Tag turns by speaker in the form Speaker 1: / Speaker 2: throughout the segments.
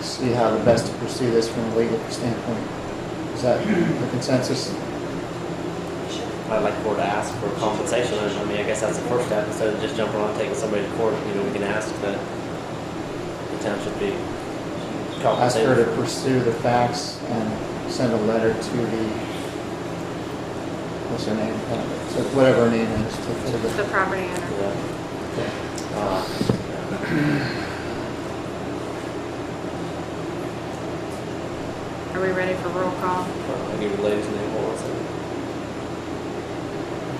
Speaker 1: see how the best to pursue this from a legal standpoint. Is that the consensus?
Speaker 2: I'd like for to ask for compensation. I mean, I guess that's the first step, instead of just jumping on and taking somebody to court, you know, we can ask that the town should be
Speaker 1: Ask her
Speaker 2: compensated.
Speaker 1: to pursue the facts and send a letter to the, what's her name? Uh, So whatever her name is, to- to
Speaker 3: The
Speaker 1: the,
Speaker 3: property owner.
Speaker 2: Yeah. Uh,
Speaker 3: Are we ready for roll call?
Speaker 2: I'll give you the lady's name, hold on a second.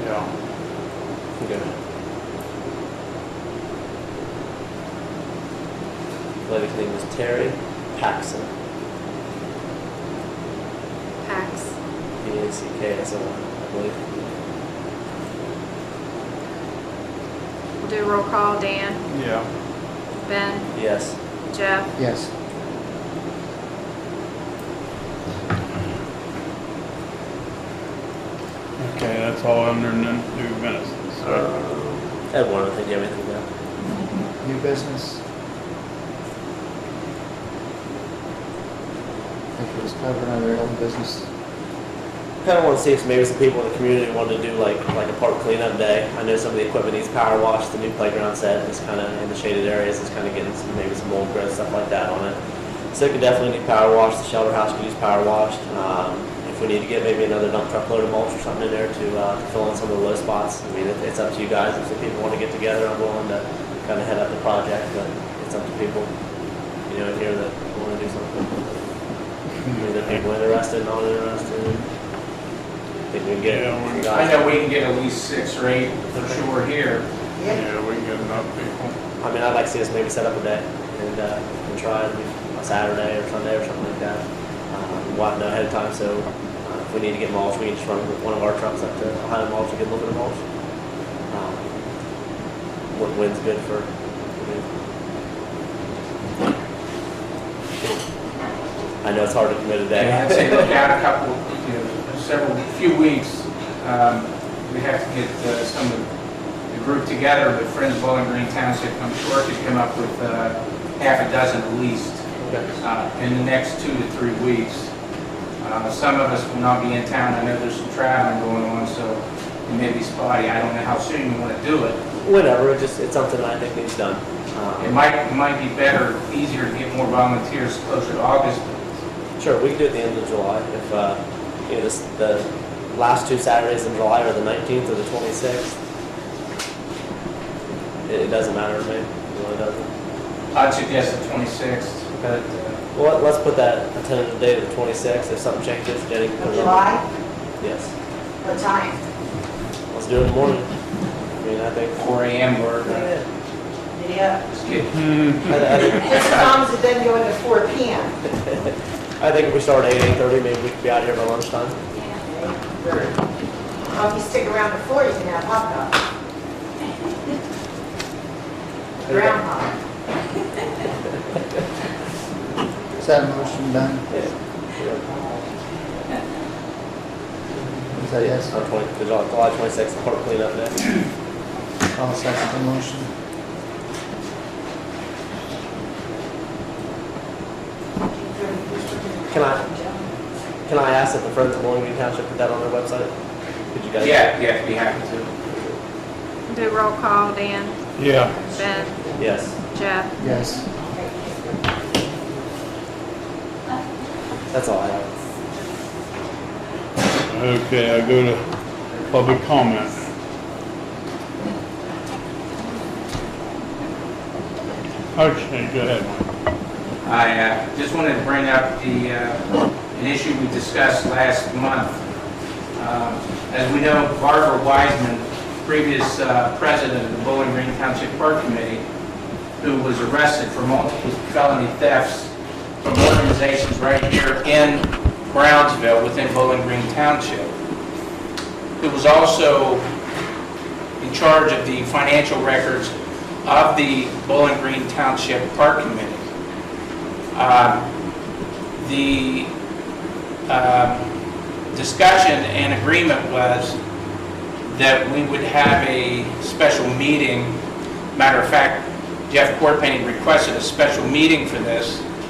Speaker 4: Yeah.
Speaker 2: You go ahead. Lady's name is Terry Paxson,
Speaker 3: Pax.
Speaker 2: P A C K S O N, I believe.
Speaker 3: We'll do roll call. Dan,
Speaker 4: Yeah.
Speaker 3: Ben,
Speaker 2: Yes.
Speaker 3: Jeff,
Speaker 1: yes.
Speaker 4: Okay, that's all under n- new business. So,
Speaker 2: Ed, one, I think you have anything to add?
Speaker 1: New business? I think it was covered under old business.
Speaker 2: Kind of want to see if maybe some people in the community wanted to do like like a park cleanup day. I know some of the equipment needs power washed. The new playground set is kind of in the shaded areas. It's kind of getting some, maybe some mold growth stuff like that on it. So it could definitely need power washed. The shelter house could use power washed. Um, if we need to get maybe another dump truck load of mulch or something in there to, uh, to fill in some of the low spots, I mean it, it's up to you guys. If some people want to get together, I'm willing to kind of head up the project, but it's up to people. You know, here that want to do something. Either people interested, not interested. Think we can get
Speaker 4: Yeah, we can-
Speaker 5: I
Speaker 2: guys.
Speaker 5: know we can get at least six or eight for sure here.
Speaker 4: yeah, we get enough people.
Speaker 2: I mean, I'd like to see us maybe set up a day and, uh, and try it on Saturday or Sunday or something like that. Um, we'll have to know ahead of time, so uh, if we need to get mulch, we can just run with one of our trucks up to Ohio Mulch and get a little bit of mulch. Um, what wind's good for. I know it's hard to commit a day.
Speaker 5: I'd say look out a couple, you know, several, few weeks. Um, We have to get uh, some of the group together, the Friends of Bowling Green Township, I'm sure could come up with uh, half a dozen at least uh, in the next two to three weeks. Uh, Some of us will not be in town. I know there's some traveling going on, so it may be spotty. I don't know how soon you want to do it.
Speaker 2: Whatever, it just, it's something I think needs done. Um,
Speaker 5: It might, it might be better, easier to get more volunteers closer to August.
Speaker 2: Sure, we can do it at the end of July if, uh, you know, this, the last two Saturdays in July are the nineteenth or the twenty-sixth. It, it doesn't matter to me, it really doesn't.
Speaker 5: I'd suggest the 26th, but uh,
Speaker 2: Well, let's put that a tentative date of the twenty-sixth, if something changes, Jenny can put
Speaker 6: Of
Speaker 2: it on.
Speaker 6: July,
Speaker 2: Yes,
Speaker 6: what time?
Speaker 2: let's do it in the morning. I mean, I think.
Speaker 5: 4 AM or uh,
Speaker 2: I-
Speaker 6: Yeah.
Speaker 5: just get
Speaker 2: I, think-
Speaker 6: Just as long as it doesn't go into four P M.
Speaker 2: I think if we start at eight, eight-thirty, maybe we could be out here by lunchtime.
Speaker 6: Well, if you stick around to four, you can have hot dog. Groundhog.
Speaker 1: Is that motion done?
Speaker 2: Yeah.
Speaker 1: Is that yes?
Speaker 2: On twenty, the July, July twenty-sixth, park cleanup day.
Speaker 1: I'll second the motion.
Speaker 2: Can I- Can I ask if the Friends of Bowling Green Township put that on their website? Could you guys?
Speaker 5: Yeah, yeah, if you happen to.
Speaker 3: do roll call. Dan,
Speaker 4: Yeah.
Speaker 3: Ben,
Speaker 2: Yes.
Speaker 3: Jeff.
Speaker 1: Yes.
Speaker 2: That's all I have.
Speaker 4: Okay, I go to public comment. Okay, go ahead, Mike.
Speaker 5: I uh, just wanted to bring up the, uh, an issue we discussed last month. Um, As we know, Barbara Wiseman, previous uh, president of the Bowling Green Township Park Committee, who was arrested for multiple felony thefts from organizations right here in Brownsville, within Bowling Green Township, who was also in charge of the financial records of the Bowling Green Township Park Committee. Um, The um, discussion and agreement was that we would have a special meeting. Matter of fact, Jeff Corpenny requested a special meeting for this